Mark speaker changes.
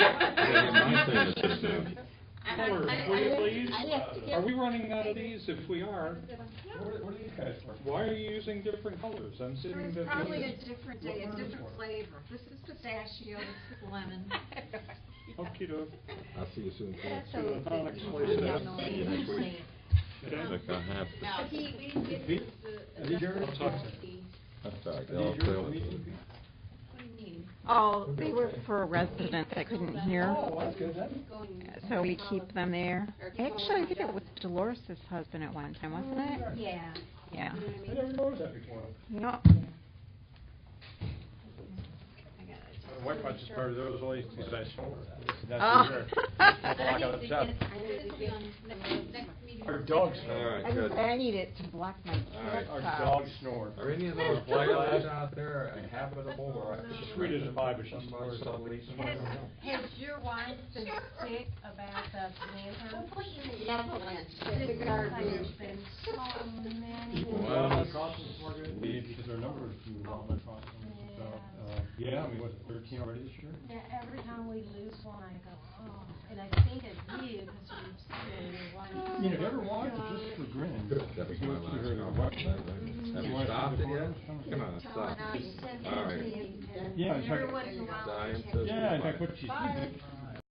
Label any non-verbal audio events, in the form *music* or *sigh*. Speaker 1: is just a-
Speaker 2: I- I-
Speaker 1: Or,
Speaker 2: I-
Speaker 1: will you
Speaker 2: I-
Speaker 1: please?
Speaker 2: I have to get-
Speaker 1: Are we running out of these? If we are,
Speaker 3: What are, what are these guys for?
Speaker 1: why are you using different colors? I'm sitting there.
Speaker 2: It's probably a
Speaker 1: thinking-
Speaker 2: different
Speaker 3: What
Speaker 2: day, a
Speaker 3: word is
Speaker 2: different
Speaker 3: it?
Speaker 2: flavor. This is pistachio, this is lemon.
Speaker 1: Okie doke.
Speaker 2: *laughs*
Speaker 4: I'll see you soon. Phil.
Speaker 1: So, uh, next
Speaker 4: Yeah,
Speaker 1: place.
Speaker 4: see you next week.
Speaker 1: Okay.
Speaker 4: Like I have to-
Speaker 3: Oh.
Speaker 2: No, he, we didn't get
Speaker 3: He-
Speaker 2: this, Um, the.
Speaker 3: is he yours?
Speaker 2: What
Speaker 4: I'm sorry,
Speaker 3: Are
Speaker 4: they're all
Speaker 3: these yours,
Speaker 4: failing.
Speaker 3: Legion?
Speaker 2: do you mean?
Speaker 5: Oh, they were for residents that couldn't hear,
Speaker 3: Oh, that's good then.
Speaker 5: so we keep them there. Actually, I think it was Dolores's husband at one time, wasn't it?
Speaker 2: Yeah.
Speaker 5: Yeah.
Speaker 2: You know what I
Speaker 3: I
Speaker 2: mean?
Speaker 3: never noticed that before.
Speaker 5: No,
Speaker 2: I got it.
Speaker 3: My wife watches part of those all these possessions.
Speaker 5: Oh.
Speaker 2: I
Speaker 5: Ah.
Speaker 2: need to get, I need to get on next, next meeting.
Speaker 3: Our
Speaker 2: *laughs*
Speaker 3: dogs
Speaker 4: All
Speaker 3: snore.
Speaker 4: right, good.
Speaker 5: I need it to block my
Speaker 4: All right.
Speaker 3: Our
Speaker 5: kids out.
Speaker 3: dogs snore.
Speaker 4: Are any of those wireless out there inhabitable or?
Speaker 3: She's sweet as a pie, but she's
Speaker 4: Somebody,
Speaker 3: snores on Lisa.
Speaker 6: Has, has your wife been sick about the
Speaker 2: Don't
Speaker 6: lantern?
Speaker 2: put in the Netherlands,
Speaker 6: This
Speaker 2: the
Speaker 6: has
Speaker 2: garden.
Speaker 6: been so many.
Speaker 4: Well,
Speaker 3: Because our number is too long, my problem. So, uh, yeah, we was thirteen already this year.
Speaker 6: Now, every time we lose one, I go, oh, and I think of you, because you've seen your wife.
Speaker 3: You never watched it just for grin.
Speaker 4: That was my last comment. Have you stopped it yet? Come on, stop.
Speaker 2: He sent it
Speaker 4: All
Speaker 2: to
Speaker 4: right.
Speaker 2: me, and
Speaker 3: Yeah, in fact-
Speaker 2: Everyone in the wild.
Speaker 4: Time
Speaker 2: had
Speaker 4: to-
Speaker 3: Yeah, in fact, what she's.
Speaker 2: Bye.